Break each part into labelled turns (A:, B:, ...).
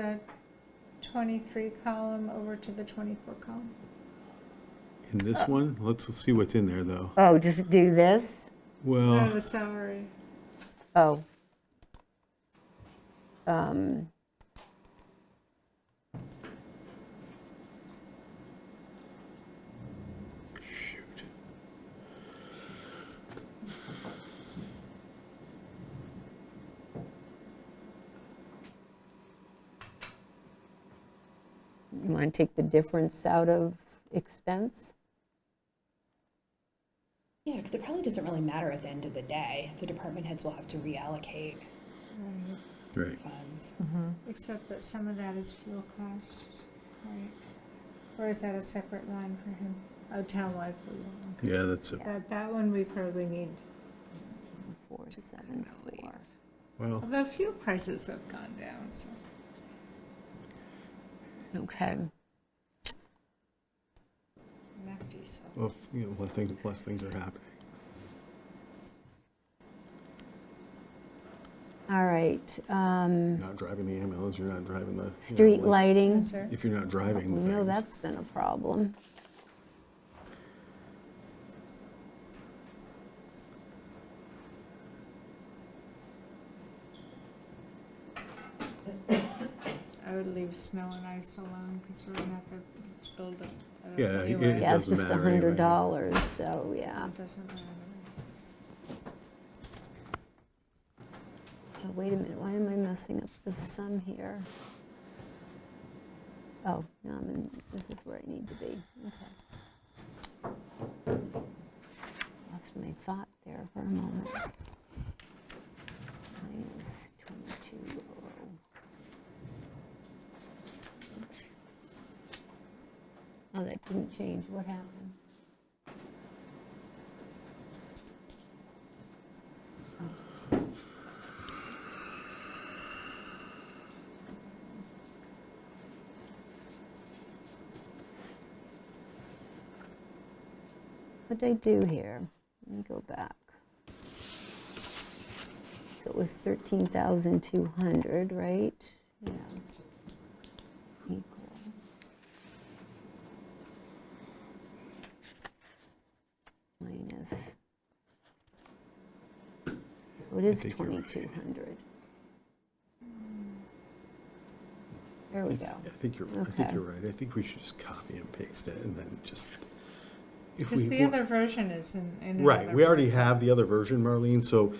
A: the 23 column over to the 24 column.
B: In this one, let's see what's in there, though.
C: Oh, just do this?
A: Out
B: Well,
A: the salary.
C: Oh. Um,
B: shoot.
C: You want to take the difference out of expense?
D: Yeah, because it probably doesn't really matter at the end of the day. The department heads will have to reallocate
A: Right.
B: Right.
D: funds.
A: Except that some of that is fuel cost, right? Or is that a separate line for him? Oh, townwide fuel. okay.
B: Yeah, that's it.
A: That, that one we probably need.
C: Four, seven, four.
B: Well,
A: Although fuel prices have gone down, so.
C: Okay.
A: Mac diesel.
B: well, f- you know, less things, less things are happening.
C: All right. um,
B: You're not driving the ambulance, you're not driving the. you know,
C: Street
B: like,
C: lighting.
A: Sir?
B: If you're not driving.
C: We know
B: things.
C: that's been a problem.
A: I would leave snow and ice alone because we're gonna have to build up. uh,
B: Yeah,
A: anyway.
B: yeah, It
C: Yeah, it's
B: doesn't
C: just a
B: matter anyway.
C: hundred dollars, so, yeah.
A: It doesn't matter.
C: Oh, Wait a minute, why am I messing up the sum here? Oh, no, I'm in, this is where I need to be, okay. Lost my thought there for a moment. Minus 22 oh. Oh, that didn't change, what happened? What did I do here? Let me go back. So it was 13,200, right? Yeah. Equal. Minus. oh, It is
B: think you're right.
C: 2,200. There we go.
B: I think you're, I think
C: Okay.
B: you're right. I think we should just copy and paste it and then just. if
A: Because
B: we
A: the
B: want-
A: other version is in. in
B: Right,
A: another
B: we already
A: version.
B: have the other version, Marlene, so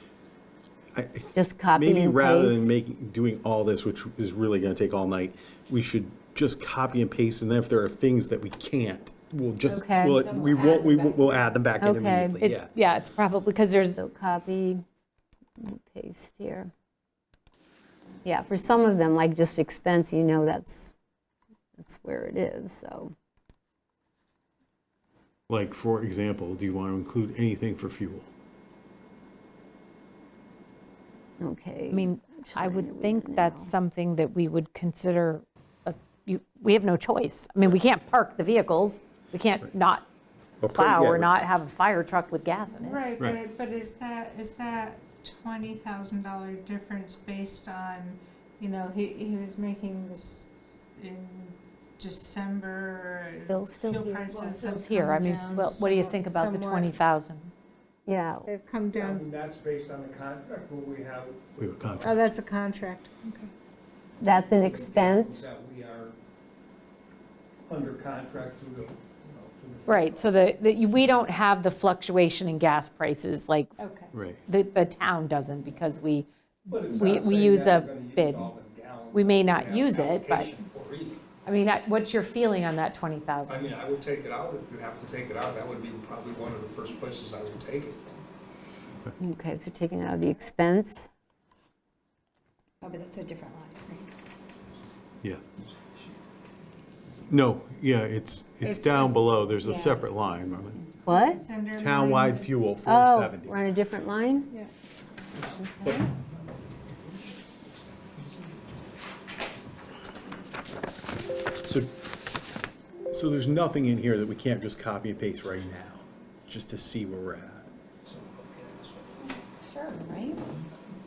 B: I, I
C: Just copy and paste.
B: Maybe rather than making, doing all this, which is really going to take all night, we should just copy and paste, and then if there are things that we can't, we'll just,
C: Okay.
B: we'll- we won't, we won't- we'll add them back in
C: Okay.
B: immediately,
E: It's,
B: yeah.
E: yeah, it's probably, because there's,
C: So copy, and paste here. Yeah, for some of them, like just expense, you know that's, that's where it is, so.
B: Like, for example, do you want to include anything for fuel?
C: Okay.
E: I mean, I would think that's something that we would consider, a- you- we have no choice. I mean, we can't park the vehicles, we can't not
B: Or pro-
E: plow
B: yeah,
E: or
B: we-
E: not have a fire truck with gas in it.
A: Right,
B: Right.
A: but, but is that, is that twenty thousand dollar difference based on, you know, he, he was making this in December?
C: Bill's still
A: fuel
C: here.
A: prices have
E: It's here,
A: come
E: I mean,
A: down
E: well, what do you think about the
A: somewhat.
E: 20,000?
C: Yeah,
A: They've come
F: I
A: down,
F: mean, that's based on the contract what we have.
B: We have a
A: oh,
B: contract.
A: that's a contract, okay.
C: that's an expense.
F: That we are under contract through the, you know, through the.
E: Right, so the, the- you- we don't have the fluctuation in gas prices like
A: Okay.
B: Right,
E: the, the town doesn't because we,
F: But it's
E: We-
F: not
E: we
F: saying
E: use
F: that
E: a
F: we're gonna use
E: bid.
F: all the gallons
E: We may
F: that
E: not
F: have
E: use it, but-
F: allocation for either.
E: I mean, I- what's your feeling on that
F: I
E: 20,000?
F: mean, I would take it out, if you have to take it out, that would be probably one of the first places I would take it.
C: Okay, so taking out the expense,
D: Oh, but that's a different line, right?
B: yeah. No, yeah, it's,
A: It's-
B: it's down below, there's a
A: yeah.
B: separate line, Marlene.
C: what?
A: It's under line-
B: Townwide fuel,
C: Oh,
B: 470.
C: we're on a different line?
A: Yeah,
B: So, so there's nothing in here that we can't just copy and paste right now, just to see where we're at.
D: Sure, right?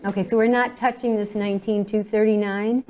C: Okay, so we're not touching this 19,239?